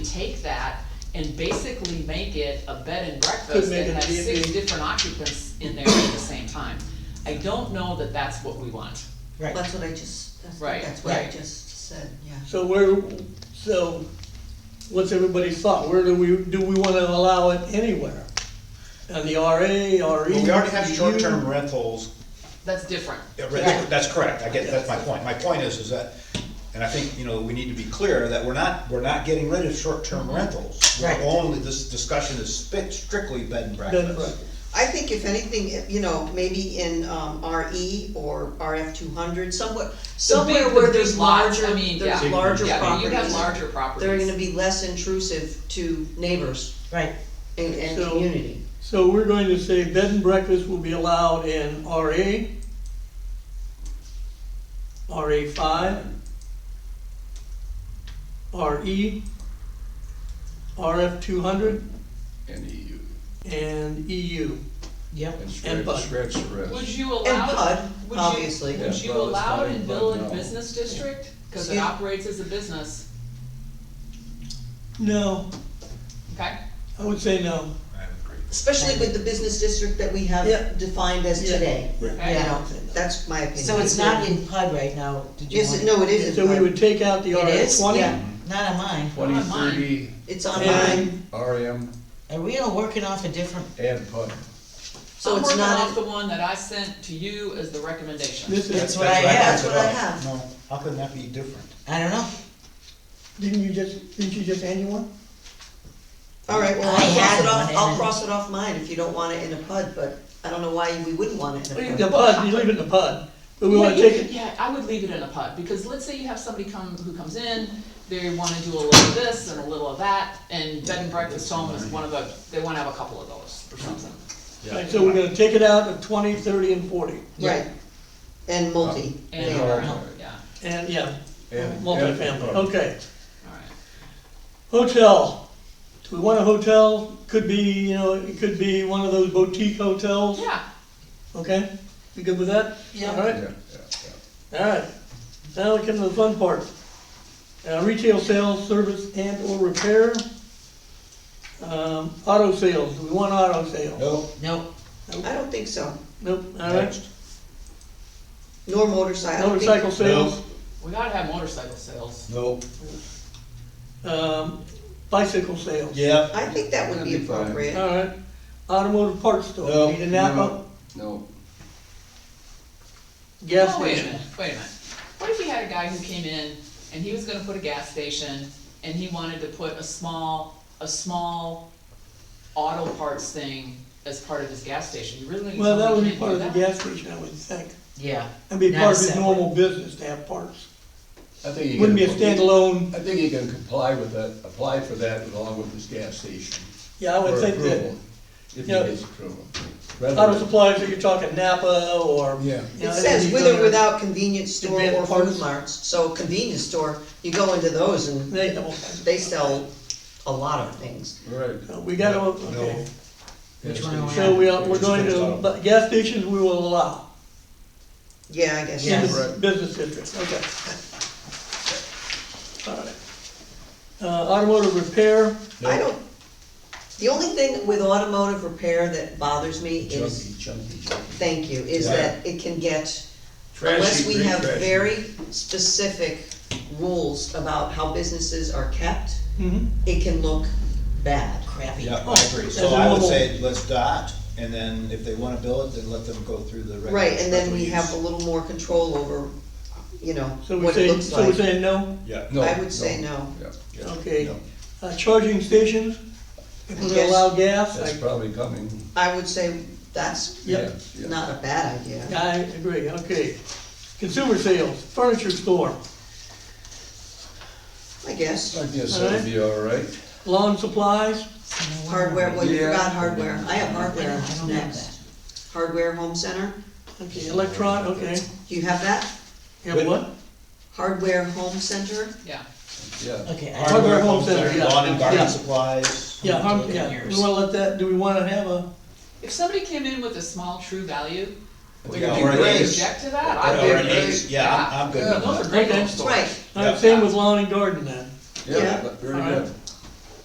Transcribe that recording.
take that and basically make it a bed and Could breakfast make and it have be- six be- different occupants in there at the same time. I don't know that that's what we want. Right, That's what I just, that's, Right, that's what I right. just said, yeah. so where, so what's everybody's thought? Where do we, do we wanna allow it anywhere? On the RA, RE? Well, we already have DU? short-term rentals, That's different. Yeah, right, that's correct, I get, that's my point. My point is, is that, and I think, you know, we need to be clear that we're not, we're not getting rid of short-term rentals. We're Right. only, this discussion is spit- strictly bed and Bed and breakfast. breakfast. I think if anything, if, you know, maybe in, um, RE or RF two hundred, somewhere, somewhere big- the where big there's lots, I larger, mean, there's yeah. larger properties. Yeah, but you have larger properties. They're gonna be less intrusive to neighbors Right, and, and So- community. So we're going to say bed and breakfast will be allowed in RA, RA five, RE, RF E, two hundred, and EU, and E EU. yep. and And scratch, Bud. scratch the rest. Would you And allow, PUD, would you- obviously. Yeah, would you well, it's allow not it in in Bud, Village no. Business District? Cause it Excuse- operates as a business, No, okay? I would say no. I would agree. Especially with the business district that we Yeah. have defined as Yeah. today, you Right. know, that's my opinion. So it's not in PUD right now, did you Yes, want? it- no, it is So in we PUD, would take out the It RF is, twenty. yeah, not on mine. Twenty, Not mine. thirty, it's on mine, And, RM, Are we all working off a different, E and PUD. so it's I'm working not, in- off the one that I sent to you as the recommendation. this That's is, what I That's have. what I have. No, how can that be different? I don't know. didn't you just, didn't you just hand you one? alright, well, I I'll cross had it one off, in I'll it. cross it off mine if you don't want it in a PUD, but I don't know why we wouldn't want it in a Leave the PUD. PUD, you leave it in the PUD, but we Yeah, wanna you take could- it, Yeah, I would leave it in a PUD, because let's say you have somebody come, who comes in, they wanna do a little of this and a little of that, and bed and breakfast home is one of the, they wanna have a couple of those or something. Right, so we're gonna take it out of twenty, thirty, and forty. Right, and multi, And, yeah. Yeah. yeah, And, yeah, And- Oh, multifamily, and- okay. alright. Hotel, do we want a hotel? Could be, you know, it could be one of those boutique hotels, Yeah, okay? You good with that? Yeah. All Yeah, right, yeah, yeah. all right. Now we come to the fun part. Uh, retail sales, service and or repair. Um, auto sales, do we want auto sales? No, Nope, I don't think so, Nope, all right. next, nor motorcycle. I don't think- Motorcycle sales, we gotta have motorcycle sales. no, um, bicycle sales. yeah, I think that would be That'd be fine. appropriate, All right. Automotive parts store, No, need a Napa, no. No, gas Oh, wait a station. minute, wait a minute. What if you had a guy who came in, and he was gonna put a gas station, and he wanted to put a small, a small auto parts thing as part of his gas station? You really Well, that would totally be can't part do of the that? gas station, I would think. yeah. That'd be Not part of his separate. normal business to have parts. I think you. Wouldn't be a can- standalone, I think you can comply with that, apply for that along with this gas station. yeah, I would for think approval, that If you know, it is approval. Rather auto than- supplies, if you're talking Napa or. Yeah. you know, it says these with or other- without convenience store Advanced or parts. food marts, so convenience store, you go into those and They have all kinds of- they sell a lot of things. Right. So We gotta, No. okay, Yes, Which one am I so we are, Yeah. we're going to, but gas stations we will allow Yeah, I guess, in yes. the Yes. business district, okay. All right. Uh, automotive repair, I don't, the only thing with automotive repair that bothers me is, Chunky, chunky, chunky. thank you, is Yeah. that it can get, Trashy, unless we very have trashy. very specific rules about how businesses are kept, mhm, it can look bad. Crappy. yeah, I agree. So As a I would mobile- say, let's dot, and then if they wanna bill it, then let them go through the regular. Right, and then special we use. have a little more control over, you know, so we what it say, looks so we like. say no, Yeah. No, I would say no. Yeah, yeah, okay. no. Uh, charging stations, if we're gonna Yes. allow gas, that's I, probably coming. I would say that's Yep. Yeah, yeah. not a bad idea. I agree, okay. Consumer sales, furniture store, I guess, I guess that would be all right. lawn supplies, hardware, well, you Yeah. forgot hardware, I have I don't, I hardware don't have next. that. Hardware home center, okay, electron, okay. do you have that? You have what? Hardware Home Center, Yeah. Yeah, Okay, I, Hardware home center, yeah. Lawn and garden Yeah. supplies. Yeah, harm, Looking yeah, years. we wanna let that, do we wanna have a, If somebody came in with a small true value, would We you already- object to that? Or I'd be an very- ace, yeah, I'm, I'm good with Those that. are great Oh. Okay. home stores. right, all right, same with lawn and garden then, Yeah. yeah, but very All right. good.